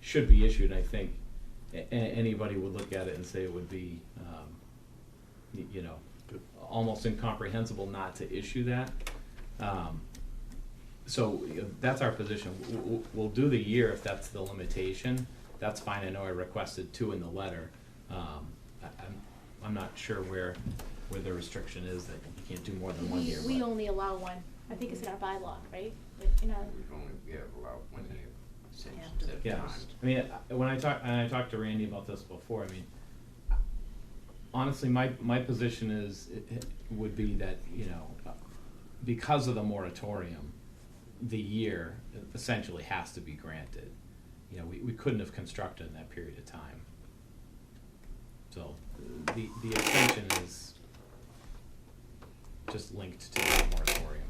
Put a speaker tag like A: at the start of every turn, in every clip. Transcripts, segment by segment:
A: should be issued, I think a- a- anybody would look at it and say it would be, um, y- you know,
B: Good.
A: almost incomprehensible not to issue that. Um, so you know, that's our position. W- w- We'll do the year if that's the limitation. That's fine. I know I requested two in the letter. Um, I, I'm, I'm not sure where, where the restriction is that you can't do more than one
C: We,
A: year.
C: we
A: but-
C: only allow one, I think it's in our bylaw, right? Like, you know,
D: We've only, we have allowed one year since
C: Yeah.
D: that
A: Yeah,
D: time.
A: I mean, I- when I talk, and I talked to Randy about this before, I mean, honestly, my, my position is, it- it would be that, you know, because of the moratorium, the year essentially has to be granted. You know, we, we couldn't have constructed in that period of time. So, the, the extension is just linked to the moratorium.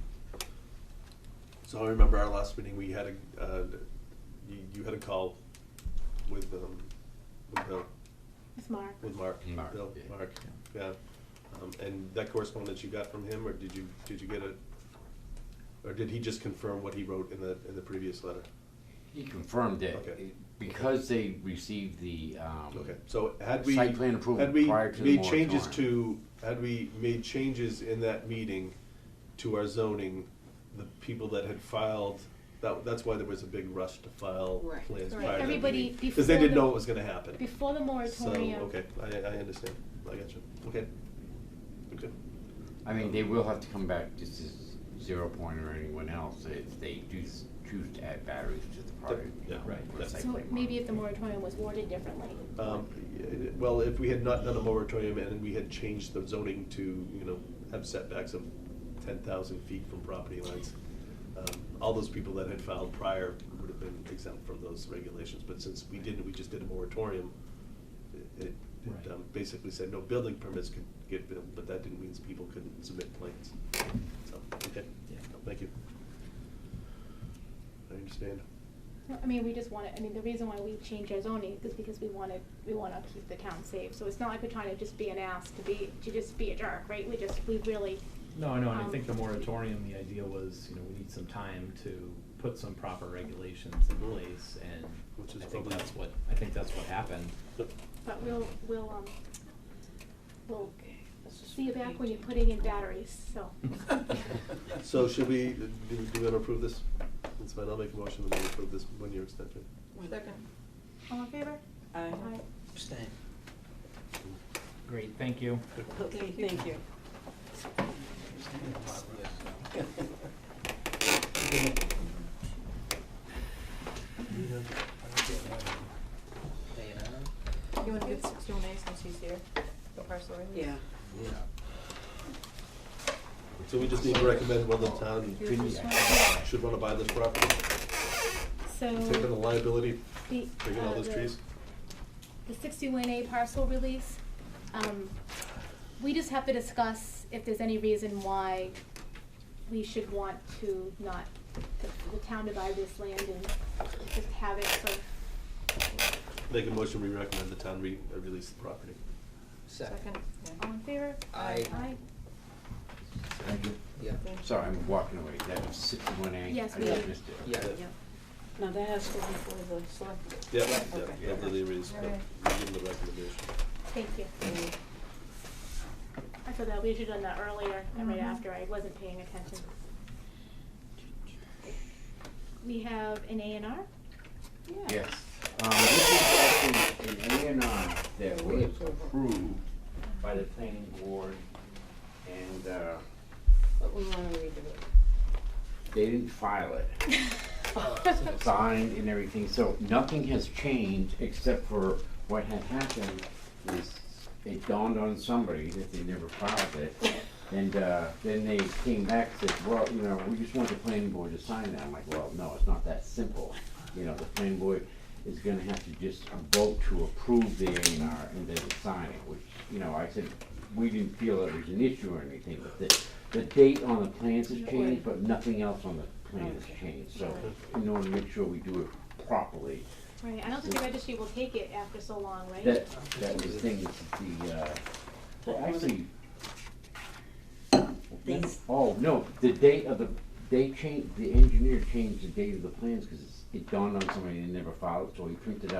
B: So I remember our last meeting, we had a, uh, you, you had a call with, um, with Bill,
C: with Mark.
B: with Mark.
D: Mark,
B: Bill,
D: yeah.
B: Mark, yeah. Um, and that correspondence you got from him, or did you, did you get it? Or did he just confirm what he wrote in the, in the previous letter?
D: He confirmed that
B: Okay.
D: because they received the, um,
B: Okay, so had we.
D: Site plan approval
B: had we
D: prior to the
B: Made changes to,
D: moratorium.
B: had we made changes in that meeting to our zoning, the people that had filed, that, that's why there was a big rush to file
E: Right.
B: plans
C: Right.
B: prior to that
C: Everybody
B: Because they
C: before
B: didn't know
C: the-
B: what was gonna happen.
C: Before the
B: So,
C: moratorium.
B: okay, I, I understand, I got you, okay. Okay,
D: I mean, they will have to come back just as Zero Point or anyone else if they do s- choose to add batteries to the product.
B: yeah,
A: right,
D: or
B: that's-
D: site
C: So
D: plan
C: maybe if the
D: modification.
C: moratorium was worded differently.
B: um, y- well, if we had not done a moratorium and we had changed the zoning to, you know, have setbacks of ten thousand feet from property lines, um, all those people that had filed prior would have been exempt from those regulations, but since we didn't, we just did a moratorium, it- it,
A: Right.
B: it um, basically said no building permits could get built, but that didn't mean people couldn't submit plans, so, okay,
A: Yeah.
B: No, thank you. I understand.
C: No, I mean, we just wanted, I mean, the reason why we changed our zoning is because we wanted, we wanna keep the town safe. So it's not like we're trying to just be an ass to be, to just be a jerk, right? We just, we really,
A: No, I know, and I
C: Um,
A: think the moratorium, the idea was, you know, we need some time to put some proper regulations in place, and
B: Mm. Which is
A: I think
B: probably-
A: that's what, I think that's what happened.
B: Yep.
C: but we'll, we'll, um, we'll
E: This is
C: see you back when you're
E: 18.
C: putting in batteries, so.
B: So should we, do do we want to approve this? That's fine, I'll make a motion that we approve this one-year extension.
E: Second.
C: All in favor?
F: Aye.
C: Aye.
E: Abstain.
A: Great, thank you.
F: Okay, thank you.
G: You wanna give sixty-one A since he's here, the parcel release?
F: Yeah.
B: So we just need to recommend whether the town
G: Here's this one.
B: should want to buy this property,
C: So.
B: take on the liability,
C: The,
B: taking all
C: uh,
B: those
C: the-
B: trees?
C: The sixty-one A parcel release, um, we just have to discuss if there's any reason why we should want to not, the town divide this land and just have it sort of
B: Make a motion, we recommend the town re, uh, release the property.
G: Second,
C: all in favor?
E: Aye.
C: Aye.
D: Thank you.
E: Yeah.
G: yeah.
D: Sorry, I'm walking away, that was sixty-one A.
C: Yes,
D: I
C: we
D: just
F: did.
D: missed it.
E: Yeah.
F: Now that has to be before the select.
B: Yep,
F: Yeah,
B: yep,
F: okay.
B: yep, they release,
G: All
B: yep, we give them the recommendation.
C: Thank you.
F: Mm.
C: I thought that we should have done that earlier and right
G: Mhm.
C: after, I wasn't paying attention. We have an A and R?
D: Yes, um, this is actually an A and R that was approved by the planning board, and, uh,
F: But we wanna redo it.
D: they didn't file it. Signed and everything, so nothing has changed except for what had happened is it dawned on somebody that they never filed it. And, uh, then they came back and said, well, you know, we just want the planning board to sign that. I'm like, well, no, it's not that simple. You know, the planning board is gonna have to just uh, vote to approve the A and R and then sign it, which, you know, I said, we didn't feel it was an issue or anything, but the, the date on the plans has changed, but nothing else on the plan has changed, so in order to make sure we do it properly,
C: Right, I don't think the registry will take it after so long, right?
D: that, that was the thing, with the, uh, well, actually.
E: These-
D: Oh, no, the date of the, they changed, the engineer changed the date of the plans, cause it's- it dawned on somebody they never filed, so he printed out.